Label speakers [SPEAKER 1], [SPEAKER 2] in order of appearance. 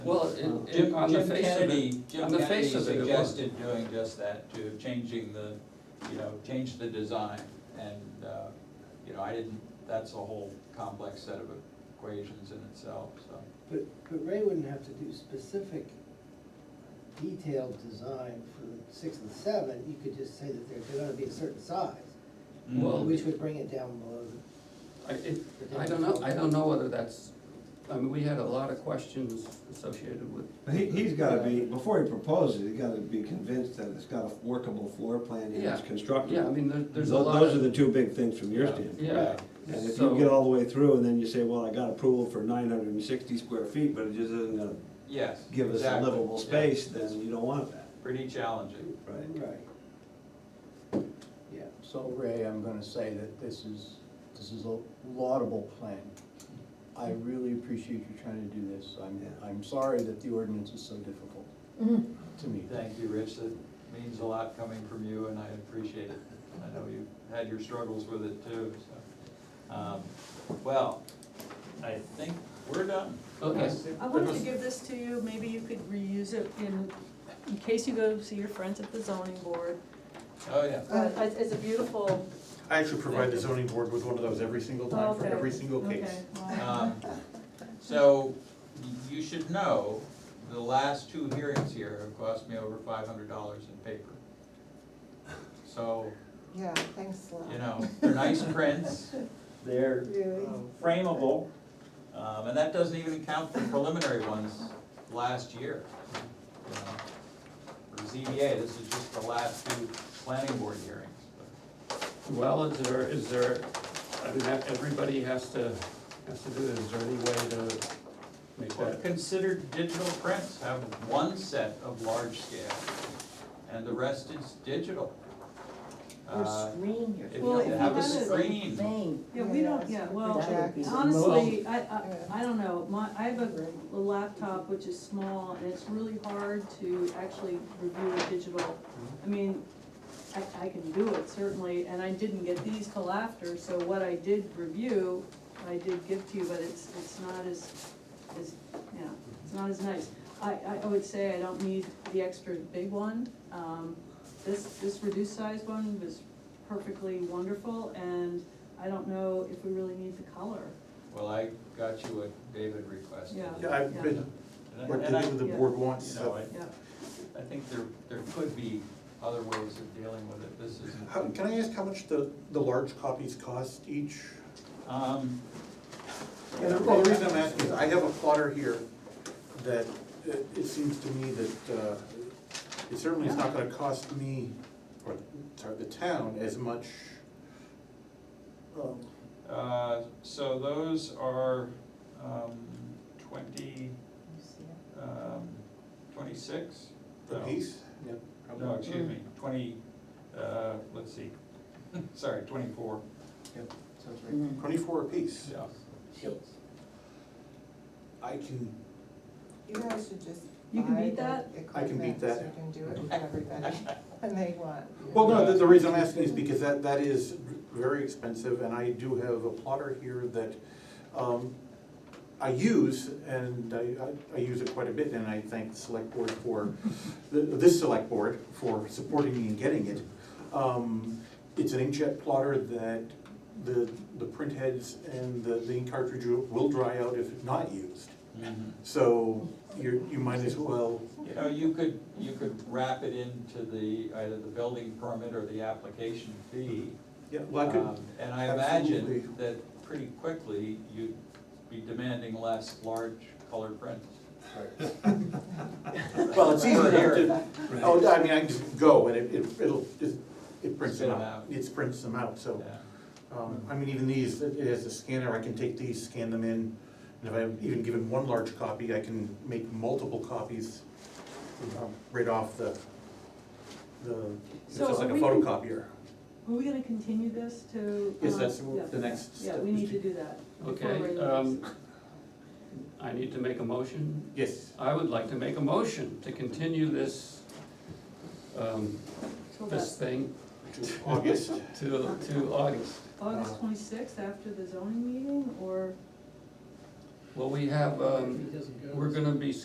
[SPEAKER 1] Jim-
[SPEAKER 2] on the
[SPEAKER 1] Jim
[SPEAKER 2] face of it-
[SPEAKER 1] Kennedy-
[SPEAKER 2] on the face of it, it
[SPEAKER 1] Jim Kennedy
[SPEAKER 2] was.
[SPEAKER 1] suggested doing just that, to changing the, you know, change the design, and, uh, you know, I didn't, that's a whole complex set of equations in itself, so.
[SPEAKER 3] But, but Ray wouldn't have to do specific detailed design for the six and seven, you could just say that they're, they're gonna be a certain size.
[SPEAKER 2] Well-
[SPEAKER 3] Which would bring it down below the,
[SPEAKER 2] I, it, I don't know, I don't know whether that's, I mean, we had a lot of questions associated with,
[SPEAKER 4] He, he's gotta be, before he proposes, he's gotta be convinced that it's got a workable floor plan and
[SPEAKER 2] Yeah.
[SPEAKER 4] it's constructible.
[SPEAKER 2] yeah, I mean, there, there's a
[SPEAKER 4] Tho-
[SPEAKER 2] lot of.
[SPEAKER 4] Those are the two big things from your
[SPEAKER 1] Yeah.
[SPEAKER 4] standpoint.
[SPEAKER 2] Yeah.
[SPEAKER 4] And if
[SPEAKER 2] So-
[SPEAKER 4] you get all the way through and then you say, well, I got approval for nine hundred and sixty square feet, but it just isn't gonna
[SPEAKER 1] Yes.
[SPEAKER 4] give us a
[SPEAKER 1] exactly,
[SPEAKER 4] livable
[SPEAKER 1] yeah.
[SPEAKER 4] space, then you don't want that,
[SPEAKER 1] Pretty challenging.
[SPEAKER 4] right?
[SPEAKER 3] right. Yeah,
[SPEAKER 5] So Ray, I'm gonna say that this is, this is a laudable plan. I really appreciate you trying to do this. I'm,
[SPEAKER 4] Yeah.
[SPEAKER 5] I'm sorry that the ordinance is so difficult
[SPEAKER 6] Mm-hmm.
[SPEAKER 5] to me.
[SPEAKER 1] Thank you, Rich, that means a lot coming from you, and I appreciate it. I know you had your struggles with it too, so. Um, Well, I think we're done.
[SPEAKER 2] Okay.
[SPEAKER 7] I wanted to give this to you, maybe you could reuse it in, in case you go see your friends at the zoning board.
[SPEAKER 1] Oh, yeah.
[SPEAKER 7] Uh, It's, it's a beautiful.
[SPEAKER 6] I actually provide the zoning board with one of those every single time for
[SPEAKER 7] Okay,
[SPEAKER 6] every single case.
[SPEAKER 7] okay, wow.
[SPEAKER 1] Um, So you should know, the last two hearings here have cost me over five hundred dollars in paper. So,
[SPEAKER 8] Yeah, thanks a lot.
[SPEAKER 1] you know, they're nice prints, they're
[SPEAKER 8] Really?
[SPEAKER 1] um, frameable, um, and that doesn't even count the preliminary ones last year. you know. For ZBA, this is just the last two planning board hearings.
[SPEAKER 2] Well, is there, is there, I mean, that- everybody has to, has to do it, is there any way to make
[SPEAKER 1] Or
[SPEAKER 2] that?
[SPEAKER 1] Consider digital prints, have one set of large scale, and the rest is digital.
[SPEAKER 9] Or
[SPEAKER 1] Uh,
[SPEAKER 9] screen your.
[SPEAKER 1] if
[SPEAKER 7] Well,
[SPEAKER 1] you
[SPEAKER 7] if
[SPEAKER 1] have
[SPEAKER 7] you
[SPEAKER 1] a
[SPEAKER 7] had it-
[SPEAKER 1] screen.
[SPEAKER 9] Thing.
[SPEAKER 7] Yeah, we don't, yeah, well,
[SPEAKER 9] That would be the
[SPEAKER 7] honestly, I, I, I don't know, my, I have a a laptop which is small, and it's really hard to actually review a digital. I mean, I, I can do it certainly, and I didn't get these till after, so what I did review, I did give to you, but it's, it's not as, as, yeah, it's not as nice. I, I I would say I don't need the extra big one, um, this, this reduced size one was perfectly wonderful, and I don't know if we really need the color.
[SPEAKER 1] Well, I got you what David requested.
[SPEAKER 7] Yeah.
[SPEAKER 6] Yeah, I've been,
[SPEAKER 1] And I-
[SPEAKER 6] what
[SPEAKER 1] and I-
[SPEAKER 6] the
[SPEAKER 7] yeah.
[SPEAKER 6] board wants,
[SPEAKER 1] You
[SPEAKER 6] so-
[SPEAKER 1] know, I,
[SPEAKER 7] Yeah,
[SPEAKER 1] I think there, there could be other ways of dealing with it, this is.
[SPEAKER 6] How, can I ask how much the, the large copies cost each?
[SPEAKER 1] Um,
[SPEAKER 6] And the- well, the reason I'm asking is I have a plotter here that it, it seems to me that, uh, it certainly is not gonna cost me, or, sorry, the town as much. um,
[SPEAKER 1] uh, so those are, um, twenty, um, twenty-six?
[SPEAKER 6] The
[SPEAKER 1] No.
[SPEAKER 6] piece?
[SPEAKER 1] No, Uh, excuse me, twenty, uh, let's see, sorry, twenty-four,
[SPEAKER 6] Yep, sounds
[SPEAKER 9] Mhm.
[SPEAKER 6] Twenty-four apiece.
[SPEAKER 1] yeah.
[SPEAKER 6] I can,
[SPEAKER 8] You guys should just.
[SPEAKER 7] You can
[SPEAKER 8] buy
[SPEAKER 7] beat
[SPEAKER 8] the
[SPEAKER 7] that?
[SPEAKER 6] I can beat
[SPEAKER 8] equipment
[SPEAKER 6] that.
[SPEAKER 8] So you can do it with everybody when they want.
[SPEAKER 6] well, no, the, the reason I'm asking is because that, that is very expensive, and I do have a plotter here that, um, I use, and I, I, I use it quite a bit, and I thank the select board for, th- this select board for supporting me in getting it. Um, it's an inkjet plotter that the, the print heads and the, the ink cartridge will dry out if not used. So you're, you might as well
[SPEAKER 1] You know, Uh, you could, you could wrap it into the, either the building permit or the application fee.
[SPEAKER 6] Yeah, well, I could,
[SPEAKER 1] Um, And I
[SPEAKER 6] absolutely.
[SPEAKER 1] imagine that pretty quickly, you'd be demanding less large colored prints.
[SPEAKER 6] well, it's easy
[SPEAKER 1] Right.
[SPEAKER 6] to, oh, I mean, I can just go and it, it- it'll, just- it prints
[SPEAKER 1] Spit
[SPEAKER 6] them
[SPEAKER 1] 'em
[SPEAKER 6] out,
[SPEAKER 1] out.
[SPEAKER 6] it prints them out, so.
[SPEAKER 1] Yeah.
[SPEAKER 6] Um, I mean, even these, it it has a scanner, I can take these, scan them in, and if I'm even given one large copy, I can make multiple copies um, right off the, the, it's
[SPEAKER 7] So
[SPEAKER 6] just like
[SPEAKER 7] are
[SPEAKER 6] a
[SPEAKER 7] we-
[SPEAKER 6] photocopier.
[SPEAKER 7] are we gonna continue this to?
[SPEAKER 6] Yes,
[SPEAKER 7] um,
[SPEAKER 6] that's
[SPEAKER 7] yeah,
[SPEAKER 6] the next
[SPEAKER 7] Yeah,
[SPEAKER 6] step
[SPEAKER 7] we
[SPEAKER 6] is
[SPEAKER 7] need
[SPEAKER 6] to-
[SPEAKER 7] to do that. before
[SPEAKER 2] Okay,
[SPEAKER 7] we're in
[SPEAKER 2] um, I need to make a motion
[SPEAKER 6] Yes,
[SPEAKER 2] I would like to make a motion to continue this, um,
[SPEAKER 7] this. Till
[SPEAKER 2] this
[SPEAKER 7] that
[SPEAKER 2] thing
[SPEAKER 6] to August,
[SPEAKER 2] to, to August.
[SPEAKER 7] August twenty-sixth after the zoning meeting, or?
[SPEAKER 2] Well, we have,
[SPEAKER 3] if he
[SPEAKER 2] um,
[SPEAKER 3] doesn't go.
[SPEAKER 2] we're gonna be